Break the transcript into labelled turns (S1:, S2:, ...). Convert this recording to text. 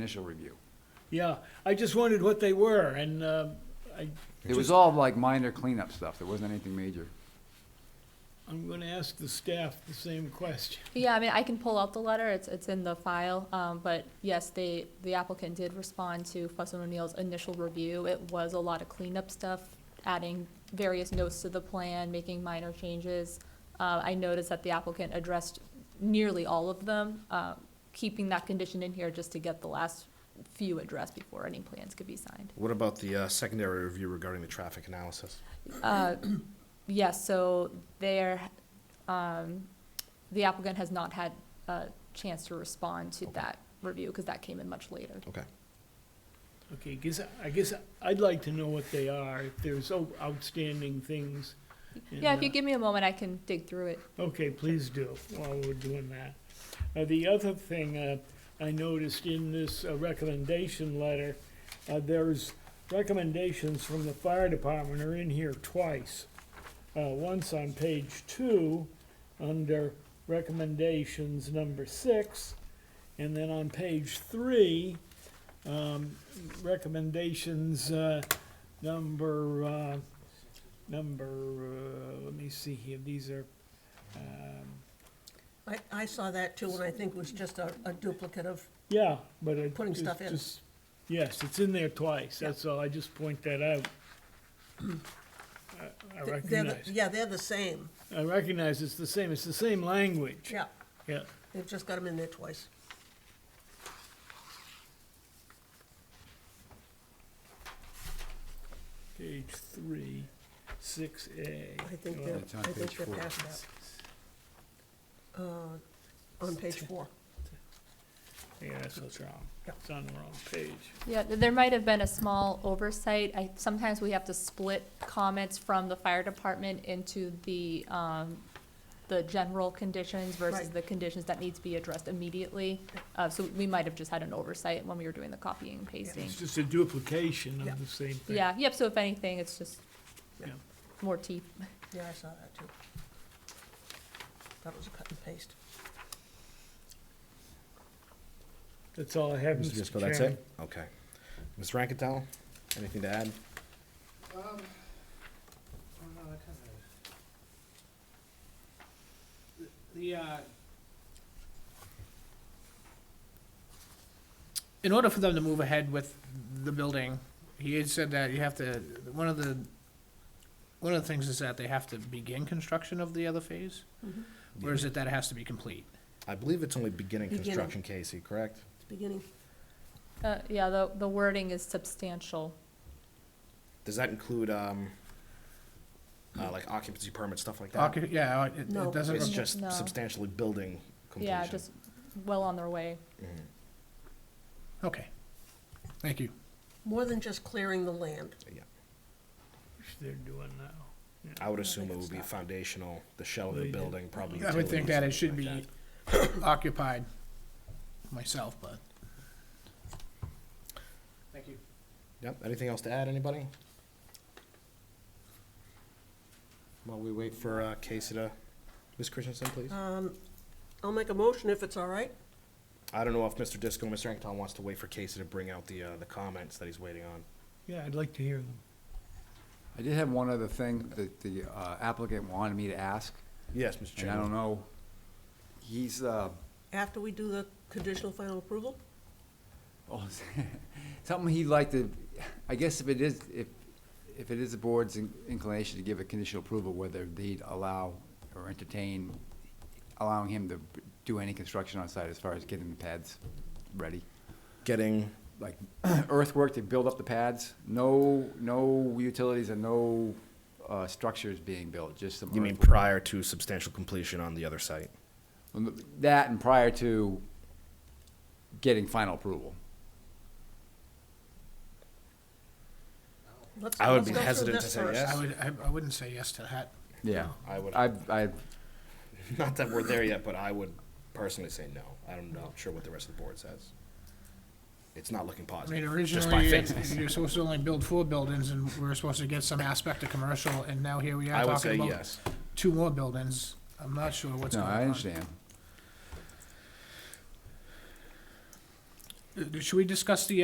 S1: initial review.
S2: Yeah, I just wondered what they were, and uh, I,
S1: It was all like minor cleanup stuff, there wasn't anything major.
S2: I'm going to ask the staff the same question.
S3: Yeah, I mean, I can pull out the letter, it's, it's in the file, um, but yes, they, the applicant did respond to Fuss and O'Neill's initial review. It was a lot of cleanup stuff, adding various notes to the plan, making minor changes. Uh, I noticed that the applicant addressed nearly all of them, uh, keeping that condition in here just to get the last few addressed before any plans could be signed.
S4: What about the uh, secondary review regarding the traffic analysis?
S3: Yes, so there, um, the applicant has not had a chance to respond to that review, because that came in much later.
S4: Okay.
S2: Okay, guess, I guess I'd like to know what they are, if there's o- outstanding things. in
S3: Yeah, if
S2: the-
S3: you give me a moment, I can dig through it.
S2: Okay, please do, while we're doing that. Uh, The other thing uh, I noticed in this uh, recommendation letter, uh, there's recommendations from the fire department are in here twice. Uh, Once on page two, under recommendations number six, and then on page three, um, recommendations uh, number, uh, number, uh, let me see here, these are um,
S5: I, I saw that too, and I think it was just a, a duplicate of,
S2: Yeah, but I.
S5: Putting
S2: it's
S5: stuff in.
S2: just- Yes, it's in there twice, that's all, I just point that out. I- I
S5: they're, the-
S2: recognize,
S5: yeah, they're the same,
S2: I recognize it's the same, it's the same language.
S5: yeah,
S2: Yeah,
S5: they've just got them in there twice.
S2: page three, six A.
S5: I think they're,
S1: It's on
S5: I think
S1: page
S5: they're
S1: four.
S5: past that. Uh, On page four,
S2: Yeah, that's what's wrong,
S5: Yeah.
S2: it's on the wrong page.
S3: Yeah, th- there might have been a small oversight. I, sometimes we have to split comments from the fire department into the, um, the general conditions versus
S5: Right.
S3: the conditions that need to be addressed immediately. Uh, so we might have just had an oversight when we were doing the copying and pasting.
S2: It's just a duplication
S5: Yeah.
S2: of the same thing.
S3: Yeah, yep, so if anything, it's just
S2: Yeah.
S3: more teeth.
S5: yeah, I saw that too. That was a cut and paste.
S2: That's all I have,
S4: Mr.
S2: Mr.
S4: Disco,
S2: Chairman.
S4: that's it? Okay. Ms. Rankettel, anything to add?
S6: Oh, Um, no, that kind of. The, the, uh. In order for them to move ahead with the building, he had said that you have to, one of the, one of the things is that they have to begin construction of the other phase?
S2: Mm-hmm.
S6: Or is it that it has to be complete?
S4: I believe it's only beginning
S5: Beginning.
S4: construction, Casey, correct?
S5: It's beginning,
S3: Uh, yeah, the, the wording is substantial.
S4: Does that include, um, uh, like occupancy permit, stuff like that?
S6: Occu- Yeah, it-
S5: No.
S6: it doesn't,
S4: It's
S6: re-
S4: just
S3: No.
S4: substantially building
S3: Yeah,
S4: completion.
S3: just well on their way.
S6: okay. Thank you.
S5: more than just clearing the land,
S2: Which They're doing now.
S4: I would assume it would be foundational, the shell of the building, probably.
S6: I would
S4: utilities,
S6: think that it should
S4: something
S6: be
S4: like that.
S6: occupied myself, but. Thank you.
S4: Yep, anything else to add, anybody? While we wait for, uh, Casey to, Ms. Christensen, please?
S6: Um,
S5: I'll make a motion if it's all right.
S4: I don't know if Mr. Disco, Mr. Ankton wants to wait for Casey to bring out the, uh, the comments that he's waiting on.
S2: Yeah, I'd like to hear them.
S1: I did have one other thing that the uh, applicant wanted me to ask,
S4: Yes, Mr.
S1: and I don't know, he's, uh,
S5: After we do the conditional final approval,
S1: oh, something he'd like to, I guess if it is, if, if it is the board's in- inclination to give a conditional approval, whether they'd allow or entertain allowing him to do any construction on site as far as getting the pads ready.
S4: Getting,
S1: like earthwork to build up the pads. No, no utilities and no uh, structures being built, just some.
S4: you mean
S1: earthwork.
S4: prior to substantial completion on the other site?
S1: That and prior to getting final approval.
S5: let's,
S4: I would
S5: let's
S4: be
S5: go through
S4: hesitant
S5: this
S4: to say
S5: first.
S4: yes.
S6: I would, I, I wouldn't say yes to that.
S1: Yeah.
S4: I would,
S1: I, I,
S4: not that we're there yet, but I would personally say no. I don't know, sure what the rest of the board says. It's not looking
S6: I mean,
S4: positive. Just by
S6: originally, uh,
S4: faces.
S6: you're supposed to only build four buildings, and we were supposed to get some aspect of commercial, and now here we
S4: I
S6: are
S4: would say
S6: talking about
S4: yes.
S6: two more buildings. I'm not sure what's
S1: no,
S6: going on.
S1: I understand.
S6: Uh, Should we discuss the